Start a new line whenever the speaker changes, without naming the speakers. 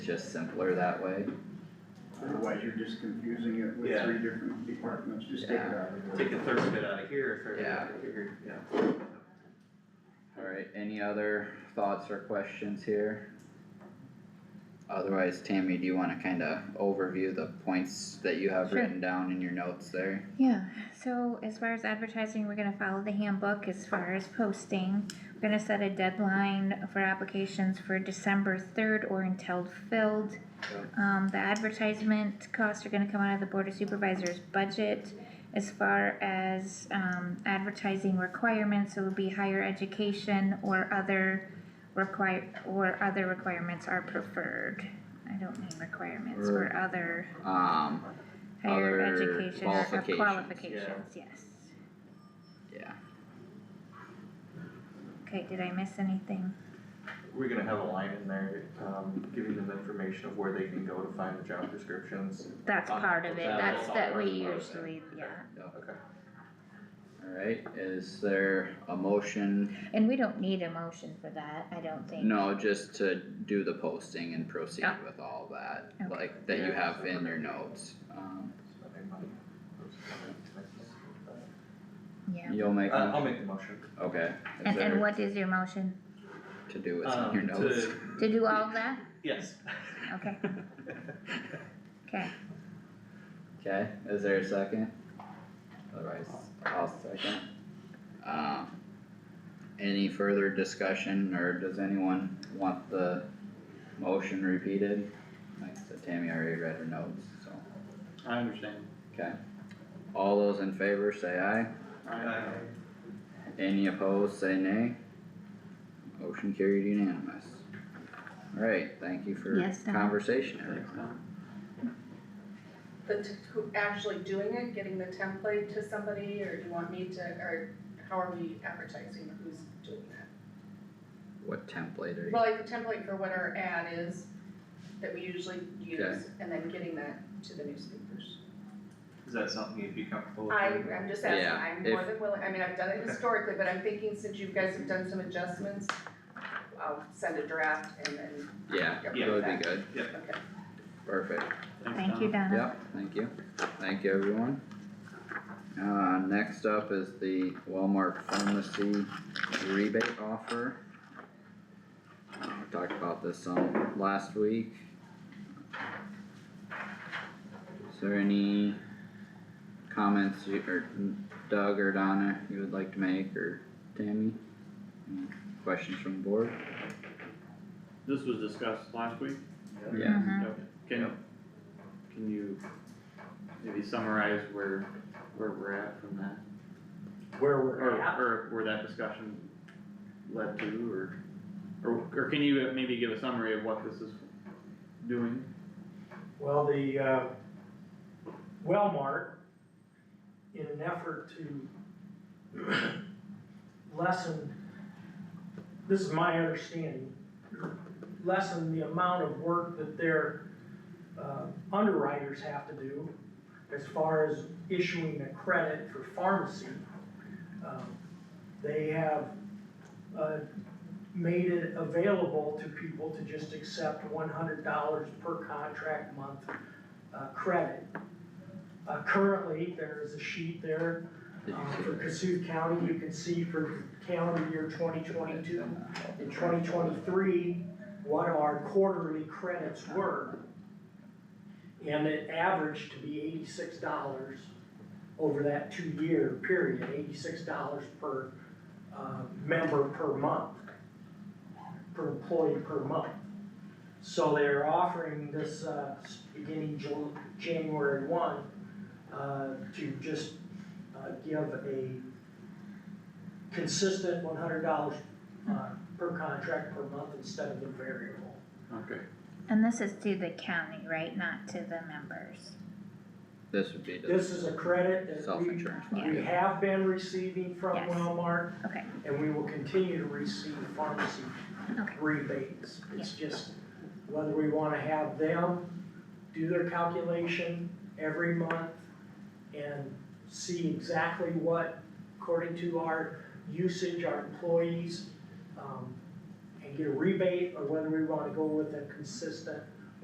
just simpler that way.
Otherwise, you're just confusing it with
Yeah.
three different departments, just take it out.
Take a third of it out of here, a third of it
Yeah.
out of here, yeah.
Alright, any other thoughts or questions here? Otherwise, Tammy, do you wanna kinda overview the points that you have
Sure.
written down in your notes there?
Yeah, so as far as advertising, we're gonna follow the handbook as far as posting. We're gonna set a deadline for applications for December third or until filled. Um, the advertisement costs are gonna come out of the board of supervisors budget. As far as, um, advertising requirements, it would be higher education or other require, or other requirements are preferred. I don't mean requirements, or other.
Um, Other
Higher education or- or
qualifications,
qualifications, yes.
yeah,
Okay, did I miss anything?
We're gonna have a line in there, um, giving them information of where they can go to find the job descriptions.
That's
Uh,
part of it,
that-
that's
that's
that
all
we
part of it.
usually, yeah.
Okay.
alright, is there a motion?
And we don't need a motion for that, I don't think.
No, just to do the posting and proceed
Yeah.
with all that,
Okay.
like, that you have in your notes. Um,
Spending money.
Yeah,
you'll make,
Uh, I'll
one?
make the motion.
okay, is
and, and
there
what is your motion?
to do it's in
Um,
your notes?
to-
To do all of that?
Yes.
Okay, okay,
Okay, is there a second? Otherwise, I'll second. Um, any further discussion, or does anyone want the motion repeated? Like I said, Tammy already read her notes, so,
I understand.
okay. All those in favor say aye,
Uh,
any opposed say nay. Motion carried unanimous. Alright, thank you for
Yes, Don.
conversation,
Thanks,
everyone.
Tom.
the, t- who actually doing it, getting the template to somebody, or do you want me to, or how are we advertising who's doing that?
What template are you?
Well, like the template for what our ad is, that we usually use, and then getting that to the newspapers.
Is that something you'd be comfortable with?
I,
doing?
I'm just asking,
Yeah,
I'm
if-
more than willing, I mean, I've done it
Okay.
historically, but I'm thinking since you guys have done some adjustments, I'll send a draft and then,
Yeah, that
Yeah.
would be good,
okay.
perfect.
Thanks,
thank you,
Tom.
Donna.
Yep, thank you, thank you everyone. Uh, next up is the Walmart pharmacy rebate offer. Uh, we talked about this some last week. Is there any comments you, or Doug or Donna you would like to make, or Tammy? Any Questions from the board?
This was discussed last week.
Uh,
Yeah.
Mhm.
Yep. Can, can you maybe summarize where, where we're at from that?
where we're
Or,
at.
or where that discussion led to, or, or, or can you maybe give a summary of what this is doing?
Well, the, uh, Wellmark, in an effort to lessen, this is my understanding, lessen the amount of work that their, uh, underwriters have to do as far as issuing a credit for pharmacy. Um, They have, uh, made it available to people to just accept one hundred dollars per contract month uh, credit. Uh, Currently, there is a sheet there
Did
uh,
you
for
see
Cassuth County, you can see for calendar year twenty
that?
twenty-two in twenty twenty-three, what our quarterly credits were. And it averaged to be eighty-six dollars over that two-year period, eighty-six dollars per, uh, member per month, per employee per month. So they're offering this, uh, s- beginning Ju- January one, uh, to just, uh, give a consistent one hundred dollars uh, per contract per month instead of the variable.
Okay,
And this is to the county, right, not to the members?
This would be
This
the
is a credit that we,
self-insurance.
we have been receiving from
Yes.
Wellmark.
Okay.
And we will continue to receive pharmacy
Okay.
rebates. It's just whether we wanna have them do their calculation every month and see exactly what, according to our usage, our employees, um, and get a rebate, or whether we wanna go with a consistent